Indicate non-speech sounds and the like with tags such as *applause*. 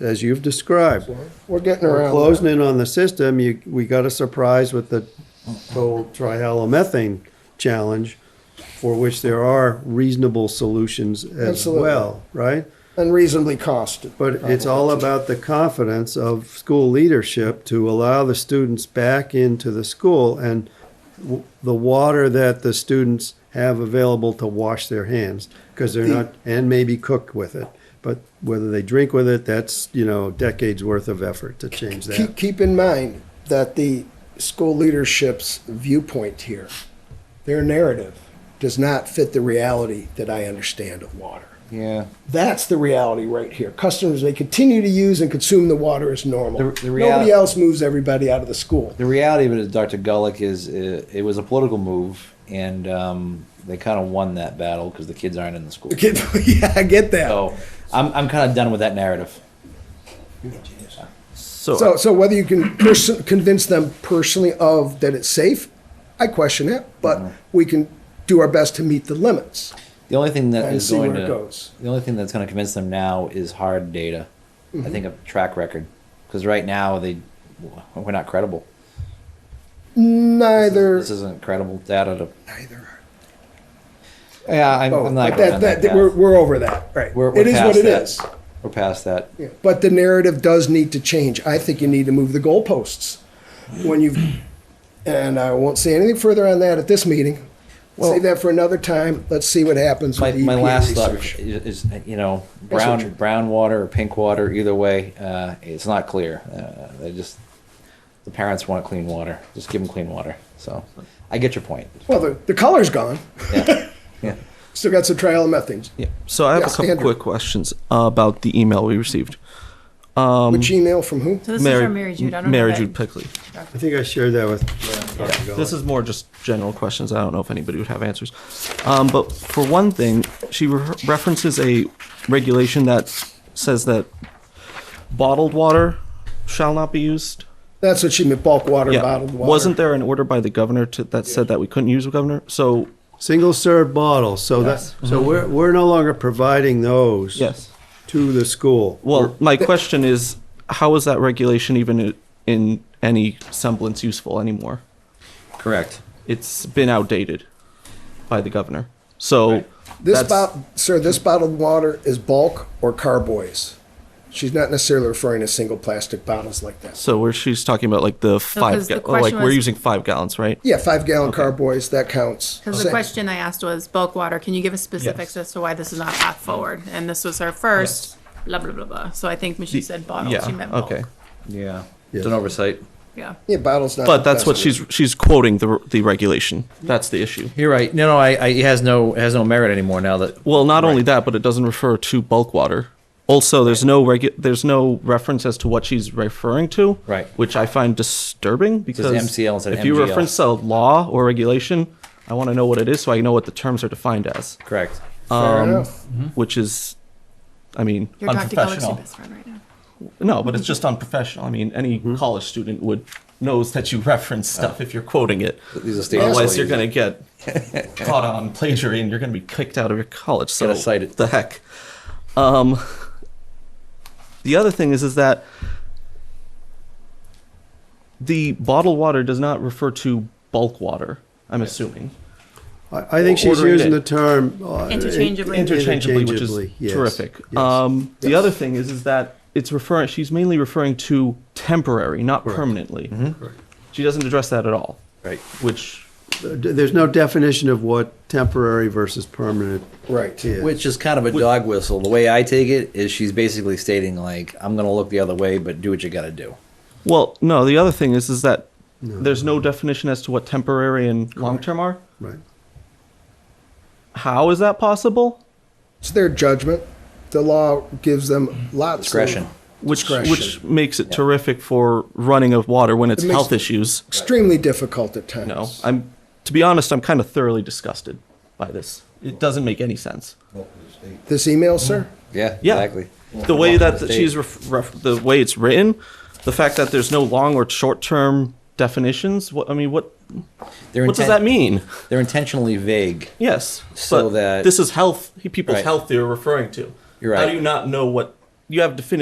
as you've described. We're getting We're around. closing in on the system, you, we got a surprise with the whole trihalomethane challenge, for which there are reasonable solutions as Absolutely. well, right? that. Unreasonably costed. But it's all about the confidence of school leadership to allow the students back into the school and w- the water that the students have available to wash their hands because they're not, and maybe cook with it. But whether they drink with it, that's, you know, decades worth of effort to change that. Keep, keep in mind that the school leadership's viewpoint here, their narrative, does not fit the reality that I understand of water. Yeah. That's the reality right here. Customers, they continue to use and consume the water as normal. The- the Nobody reality- else moves everybody out of the school. The reality of it is, Dr. Gulick is uh, it was a political move, and um, they kind of won that battle because the kids aren't in the Oh. *laughs* school. Get- yeah, I get that. So I'm, I'm kind of done with that narrative. So, so whether you can pers- convince them personally of that it's safe, I question it, but Mm-hmm. we can do our best to meet the limits. The only thing that And is see going where it to goes. the only thing that's going to convince them now is hard data. Mm-hmm. I think a track record, because right now they we're not credible. Neither, This isn't credible data to. neither are. Yeah, I'm, Oh, I'm not. but going that, on that, path. we're, we're over that, right? We're- we're It is what past it that. is. We're past that. Yeah, But the narrative does need to change. I think you need to move the goalposts when you've, and I won't say anything further on that at this meeting. Well- Save that for another time. Let's see what happens my, with my the EPA last thought research. is, is, you know Yes, brown Richard. brown water or pink water either way uh, it's not clear uh, they just the parents want clean water just give them clean water so I get your point Well, the, the color's gone. yeah yeah Still got some trimethanes. Yeah. So I have Yeah, a couple standard. quick questions about the email we received. Um, Which email from who? So this is from Mary Jude. I don't Mary know. Jude that- Pickley. I think I shared that with. This is more just general questions. I don't know if anybody would have answers. Um, but for one thing, she re- references a regulation that says that bottled water shall not be used. That's what she meant, bulk water, bottled water. Wasn't there an order by the governor to, that said that we couldn't use a governor? So Single serve bottles, so that, so we're, we're no longer providing those. Mm-hmm. Yes. To the school. Well, my question is, how is that regulation even i- in any semblance useful anymore? correct It's been outdated by the governor. So This that's- bot, sir, this bottled water is bulk or carboys. She's not necessarily referring to single plastic bottles like that. So where she's talking about like the five, 'cause the ga- question like we're was- using five gallons, right? Yeah, five gallon carboys, that counts. Because the Same. question I asked was bulk water. Can you give us specifics as to why this is not path forward? And this was her first. Blah blah blah blah. So I think when she said bottle, she meant bulk. okay. yeah Yes. it's an oversight Yeah. Yeah, bottles not. But the that's best what word. she's she's quoting the the regulation. That's the issue. you're right no no I, I it has no it has no merit anymore now that Well, not only that, but it doesn't refer to bulk water. Also, there's no regu- there's no reference as to what she's referring to, Right. Which I find disturbing because MCL instead of if you MGL. reference a law or regulation, I want to know what it is so I know what the terms are defined as, correct Fair um, enough. Mm-hmm. which is, I mean, You're Dr. Gullick's unprofessional. your best friend right now. No, Mm-hmm. but it's just unprofessional. I mean, any college student would knows that you *laughs* reference stuff if you're quoting it. These are state employees. Otherwise, you're going to get *laughs* caught on plagiarism and you're going to be kicked out of your college. So Gotta cite it. the heck. Um, the other thing is, is that the bottled water does not refer to bulk water. I'm assuming I, I think she's Ordering using it. the term. uh, Interchangeably. interchangeably, which is Interchangeably, yes. terrific. Yes. Um, the other thing is, is that it's referring. She's mainly referring to temporary, not permanently. She doesn't address that at all. Right. Which There's no definition of what temporary versus permanent Right. is. Which is kind of a dog whistle. The way I take it is she's basically stating like, I'm gonna look the other way, but do what you gotta do. Well, no. The other thing is, is that there's no definition as to what temporary and long term are. Right. How is that possible? It's their judgment. The law gives them lots. of- Discretion. Which Discretion. which makes it terrific for running of water when it's It makes- health issues. Extremely difficult at times. No, I'm. To be honest, I'm kind of thoroughly disgusted by this. It doesn't make any sense. This email, sir? Yeah, Yeah, exactly. The way Welcome that to the the she's stage. ref, ref, the way it's written, the fact that there's no long or short term definitions. What I mean, what They're what does inten- that mean? They're intentionally vague. Yes. So but that- this is health people's Right. health they're referring to. You're How right. do you not know what you have definitive